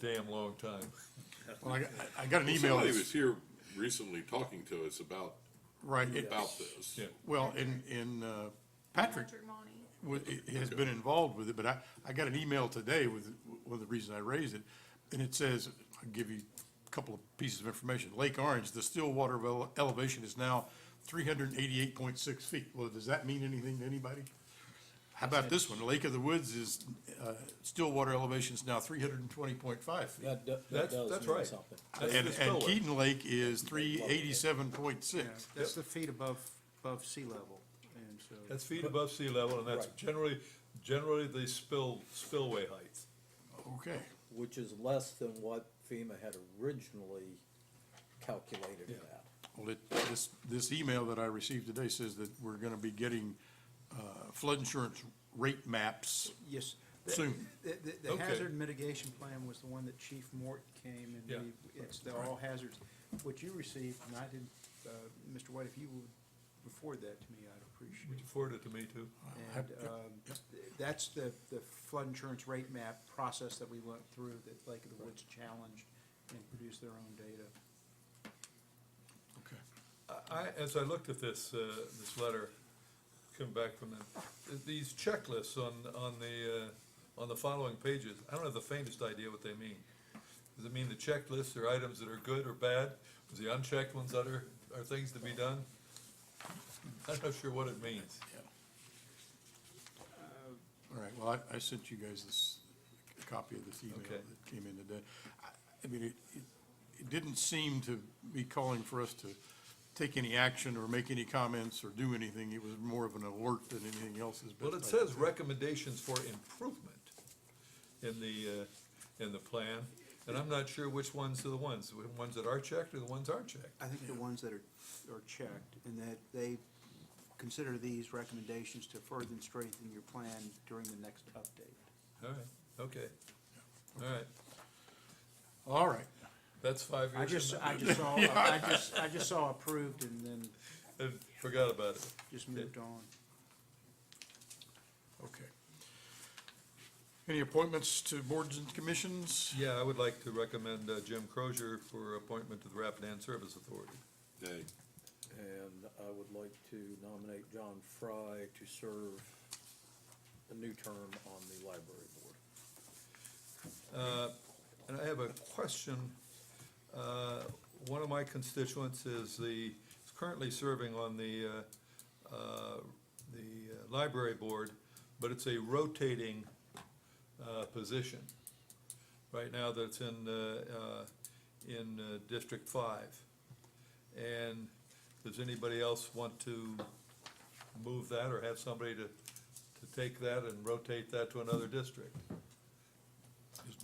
damn long time. Well, I, got- I got an Well, email, Somebody that's- was here recently talking to us about, right, it- about this. Yeah. well, in, in, uh, Patrick Patrick Monty. wa- i- has been involved with it, but I, I got an email today with, one of the reasons I raised it, and it says, I'll give you a couple of pieces of information. Lake Orange, the still water ele- elevation is now three hundred and eighty-eight point six feet. Well, does that mean anything to anybody? How about this one? Lake of the Woods is, uh, still water elevation is now three hundred and twenty point five feet. That, do- that That's, does that's mean right. something. That's And, the and spillway. Keaton Lake is three eighty-seven point six. That's the feet above, above sea level, and so, That's feet above sea level, and that's Right. generally, generally the spill, spillway height. Okay, Which is less than what FEMA had originally calculated it at. well, it, this, this email that I received today says that we're gonna be getting, uh, flood insurance rate maps yes. the- soon. The, the- the Okay. hazard mitigation plan was the one that Chief Mort came and Yeah. we- it's the all hazards. What you received, and I didn't, uh, Mr. White, if you would forward that to me, I'd Would appreciate you forward it to me too? it. Hap- And, um, that's the, the flood insurance rate map process that we went through, that Lake of the Woods challenged and produced their own data. Okay. I, as I looked at this, uh, this letter, come back from them, th- these checklists on, on the, uh, on the following pages, I don't have the faintest idea what they mean. Does it mean the checklists are items that are good or bad? Is the unchecked ones that are, are things to be done? I'm not sure what it means. All right, well, I, I sent you guys this, a copy of this email Okay. that came in today. I- I mean, it, it, it didn't seem to be calling for us to take any action or make any comments or do anything. It was more of an alert than anything else has been. Well, it says recommendations for improvement in the, uh, in the plan, and I'm not sure which ones are the ones, the ones that are checked or the ones aren't checked. I think the ones that are, are checked, and that they consider these recommendations to further strengthen your plan during the next update. All right, okay. All right, All right, that's five years. I just, from now. I just saw, I just, I just saw approved and then And Forgot about it. just moved on. okay. Any appointments to boards and commissions? Yeah, I would like to recommend uh, Jim Crozier for appointment to the Rapidan Service Authority. Nay. And I would like to nominate John Fry to serve a new term on the library board. Uh, And I have a question. Uh, One of my constituents is the, is currently serving on the, uh, uh, the uh, library board, but it's a rotating uh, position. Right now that's in, uh, uh, in uh, District Five. And does anybody else want to move that or have somebody to, to take that and rotate that to another district?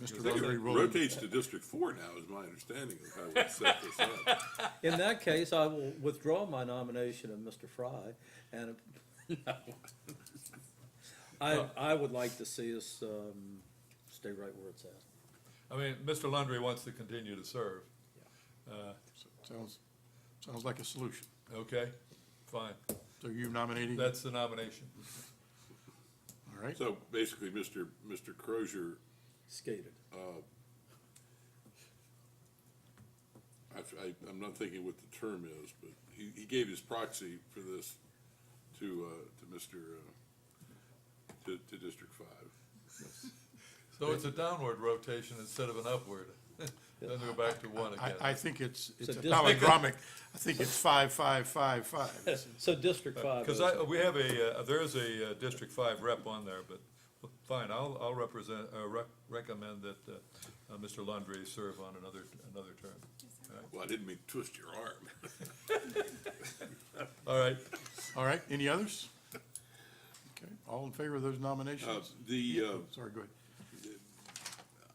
Is I Mr. think Rotary it willing? rotates to District Four now, is my understanding of how we set this up. In that case, I will withdraw my nomination of Mr. Fry and, I, I would like to see us, um, stay right where it's at. I mean, Mr. Landry wants to continue to serve. Uh, Sounds, sounds like a solution. Okay, fine. So you nominating? That's the nomination. All right, So basically, Mr. Mr. Crozier, Skated. I, I, am not thinking what the term is, but he, he gave his proxy for this to, uh, to Mr., uh, to, to District Five. So it's a downward rotation instead of an upward. Then go back to one I, again. I think it's, it's a So district- palindromic. I think it's five, five, five, five. So District Five Because is, I, we have a, uh, there is a uh, District Five rep on there, but fine, I'll, I'll represent, uh, rec- recommend that uh, uh, Mr. Landry serve on another, another term. Well, I didn't mean to twist your arm. All right, All right, any others? Okay, all in favor of those Uh, nominations? the, uh, Sorry, go ahead.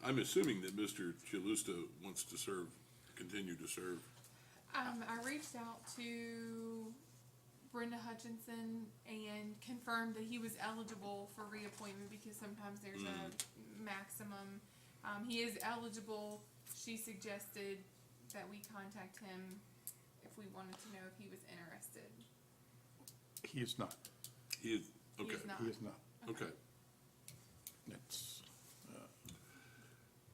I'm assuming that Mr. Chalusta wants to serve, continue to serve. Um, I reached out to Brenda Hutchinson and confirmed that he was eligible for reappointment because sometimes there's a maximum. Um, he is eligible. She suggested that we contact him if we wanted to know if he was interested. He is not, He is, He okay, is not. he is not. okay. That's,